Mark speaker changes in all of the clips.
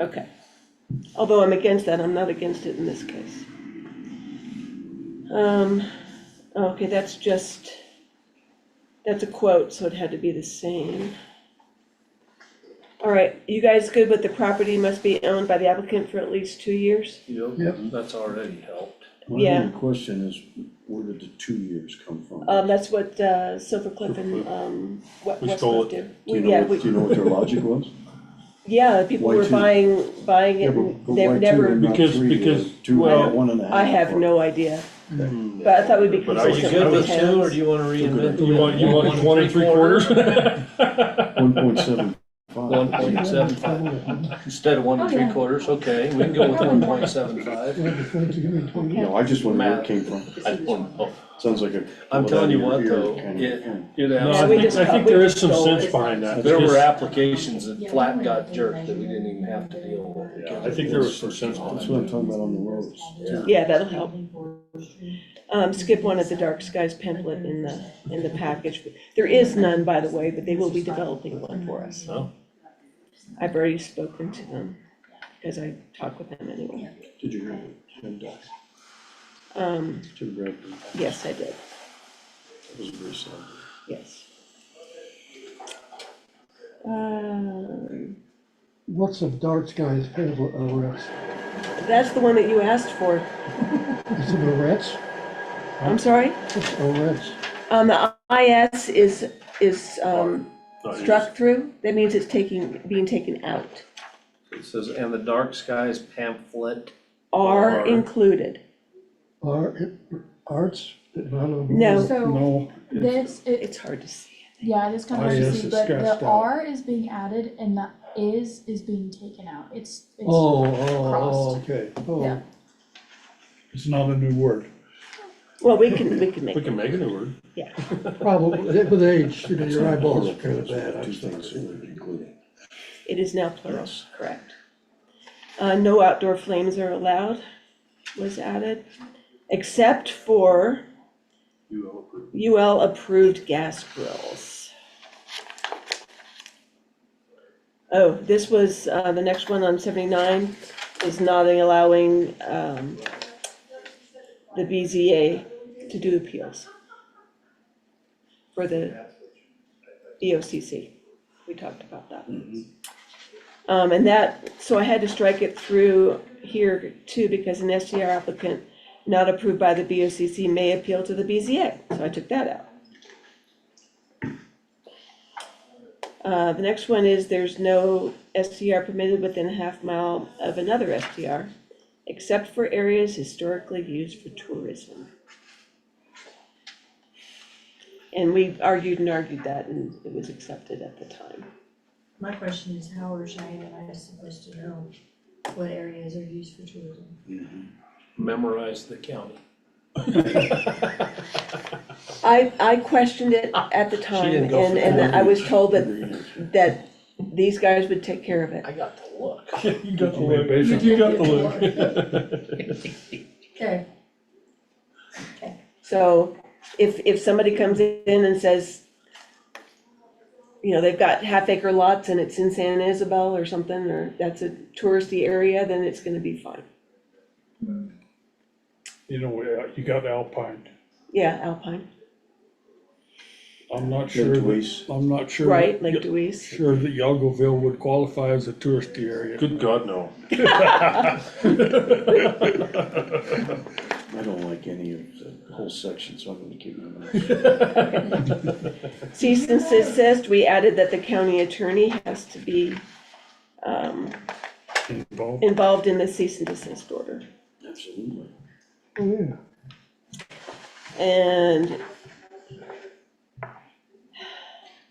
Speaker 1: Okay. Although I'm against that, I'm not against it in this case. Um, okay, that's just, that's a quote, so it had to be the same. All right, you guys good with the property must be owned by the applicant for at least two years?
Speaker 2: Yep.
Speaker 3: Yep, that's already helped.
Speaker 2: My only
Speaker 1: Yeah.
Speaker 2: question is, where did the two years come from?
Speaker 1: Um, that's what, uh, Silver Cliff and, um, We
Speaker 4: We stole
Speaker 1: Westcliff
Speaker 4: it.
Speaker 1: did.
Speaker 2: Do you
Speaker 1: Yeah,
Speaker 2: know,
Speaker 1: we-
Speaker 2: what- do you know what their logic was?
Speaker 1: Yeah, people
Speaker 2: Why
Speaker 1: were
Speaker 2: two?
Speaker 1: buying, buying it, and
Speaker 2: Yeah,
Speaker 1: they've
Speaker 2: but- but why two and
Speaker 1: never,
Speaker 2: not
Speaker 4: Because-
Speaker 2: three, or
Speaker 4: because-
Speaker 2: Two,
Speaker 1: well,
Speaker 2: or one and a half.
Speaker 1: I have
Speaker 2: or-
Speaker 1: no idea, but I thought we'd be
Speaker 4: But I
Speaker 3: Are you
Speaker 1: consistent
Speaker 3: good
Speaker 1: with the
Speaker 3: with
Speaker 1: towns.
Speaker 3: two, or do you wanna reinvent the
Speaker 4: You
Speaker 3: wheel?
Speaker 4: want, you want one and three quarters?
Speaker 2: One point seven five.
Speaker 3: One point seven five, instead of one and three quarters, okay, we can go with one point seven five.
Speaker 2: No, I just wonder where it came from.
Speaker 3: I don't know.
Speaker 2: Sounds like a.
Speaker 3: I'm telling you what,
Speaker 2: Well, that
Speaker 3: though,
Speaker 2: kind of
Speaker 3: it,
Speaker 2: thing.
Speaker 3: it,
Speaker 4: No,
Speaker 1: Yeah,
Speaker 4: I
Speaker 1: we
Speaker 4: think,
Speaker 1: just
Speaker 4: I
Speaker 1: got-
Speaker 4: think
Speaker 1: we
Speaker 4: there is
Speaker 1: just
Speaker 4: some
Speaker 1: stole
Speaker 4: sense
Speaker 1: it.
Speaker 4: behind that.
Speaker 3: there were
Speaker 4: because-
Speaker 3: applications that flat got jerked that we didn't even have to deal with.
Speaker 4: Yeah, I think there was some sense behind
Speaker 2: That's
Speaker 4: it.
Speaker 2: what I'm talking about on the roads.
Speaker 3: Yeah.
Speaker 1: Yeah, that'll help. Um, skip one of the dark skies pamphlet in the, in the package. There is none, by the way, but they will be developing one for us.
Speaker 3: Oh.
Speaker 1: I've already spoken to them, because I talk with them anyway.
Speaker 2: Did you hear that? Jim Dox,
Speaker 1: Um,
Speaker 2: Jim Bradford,
Speaker 1: yes, I did,
Speaker 2: that was very sad.
Speaker 1: yes. Um,
Speaker 5: What's a dark sky's pamphlet arrest?
Speaker 1: that's the one that you asked for.
Speaker 5: Is it arrest?
Speaker 1: I'm sorry?
Speaker 5: What's arrest?
Speaker 1: Um, the IS is, is, um,
Speaker 4: No, it
Speaker 1: struck through. That means it's taking, being taken out.
Speaker 3: It says, and the dark skies pamphlet,
Speaker 1: Are
Speaker 4: Are.
Speaker 1: included.
Speaker 5: Are, it- arts? No.
Speaker 1: No.
Speaker 5: No.
Speaker 6: This, it,
Speaker 1: It's hard to see.
Speaker 6: yeah, it is kind of hard
Speaker 5: Oh,
Speaker 6: to
Speaker 5: yes,
Speaker 6: see,
Speaker 5: it's
Speaker 6: but the
Speaker 5: scratched out.
Speaker 6: R is being added and the is is being taken out. It's, it's.
Speaker 5: Oh, oh, oh,
Speaker 6: Crossed.
Speaker 5: okay,
Speaker 6: Yeah.
Speaker 5: oh. It's not a new word.
Speaker 1: Well, we can, we can
Speaker 4: is.
Speaker 1: make
Speaker 4: We
Speaker 1: it.
Speaker 4: can make a new word.
Speaker 5: Probably, with age, you know, your eyeballs are
Speaker 2: Two
Speaker 5: kind of bad, I'm
Speaker 2: things
Speaker 5: sorry.
Speaker 2: that were included.
Speaker 1: It is now plural, correct. Uh, no outdoor flames are allowed was added, except for UL approved gas grills. Oh, this was, uh, the next one on seventy-nine is not allowing, um, the BZA to do appeals for the E EOCC. We talked about that. Um, and that, so I had to strike it through here too, because an SDR applicant not approved by the BOCC may appeal to the BZA, so I took that out. Uh, the next one is there's no SDR permitted within a half mile of another SDR, except for areas historically used for tourism. And we argued and argued that, and it was accepted at the time.
Speaker 7: My question is, how are Cheyenne and I supposed to know what areas are used for tourism?
Speaker 3: memorize the county.
Speaker 1: I, I questioned it at the time,
Speaker 3: Ah, didn't go
Speaker 1: and,
Speaker 3: for
Speaker 1: and I was told that,
Speaker 2: Agreed.
Speaker 1: that these guys would take care of it.
Speaker 3: I got the look.
Speaker 4: You got the
Speaker 2: look.
Speaker 4: look, you got the look.
Speaker 7: Okay,
Speaker 1: So if, if somebody comes in and says, you know, they've got half acre lots and it's in San Isabel or something, or that's a touristy area, then it's gonna be fine.
Speaker 8: you know, uh, you got Alpine.
Speaker 1: Yeah, Alpine,
Speaker 8: I'm not
Speaker 2: Like
Speaker 8: sure that,
Speaker 2: Dewey's.
Speaker 8: I'm not sure. that-
Speaker 1: right, Lake Dewey's.
Speaker 8: Sure that Yagoville would qualify as a touristy area.
Speaker 4: Good God, no.
Speaker 2: I don't like any of the whole section, so I'm gonna keep my mouth.
Speaker 1: Cease and desist, we added that the county attorney has to be
Speaker 8: involved.
Speaker 1: involved in the cease and desist order.
Speaker 2: Absolutely.
Speaker 5: Oh, yeah.
Speaker 1: And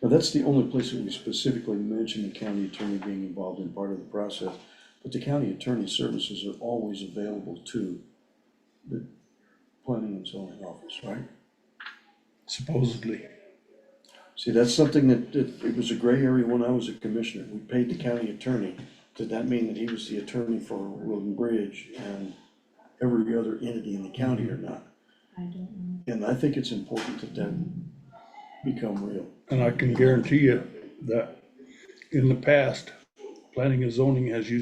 Speaker 2: Now, that's the only place that we specifically mention the county attorney being involved in part of the process. But the county attorney services are always available to the planning and zoning office, right?
Speaker 8: supposedly.
Speaker 2: See, that's something that, that, it was a gray area when I was a commissioner. We paid the county attorney. Did that mean that he was the attorney for Road and Bridge and every other entity in the county or not?
Speaker 6: I don't know.
Speaker 2: And I think it's important that that become real.
Speaker 8: And I can guarantee you that in the past, planning and zoning has used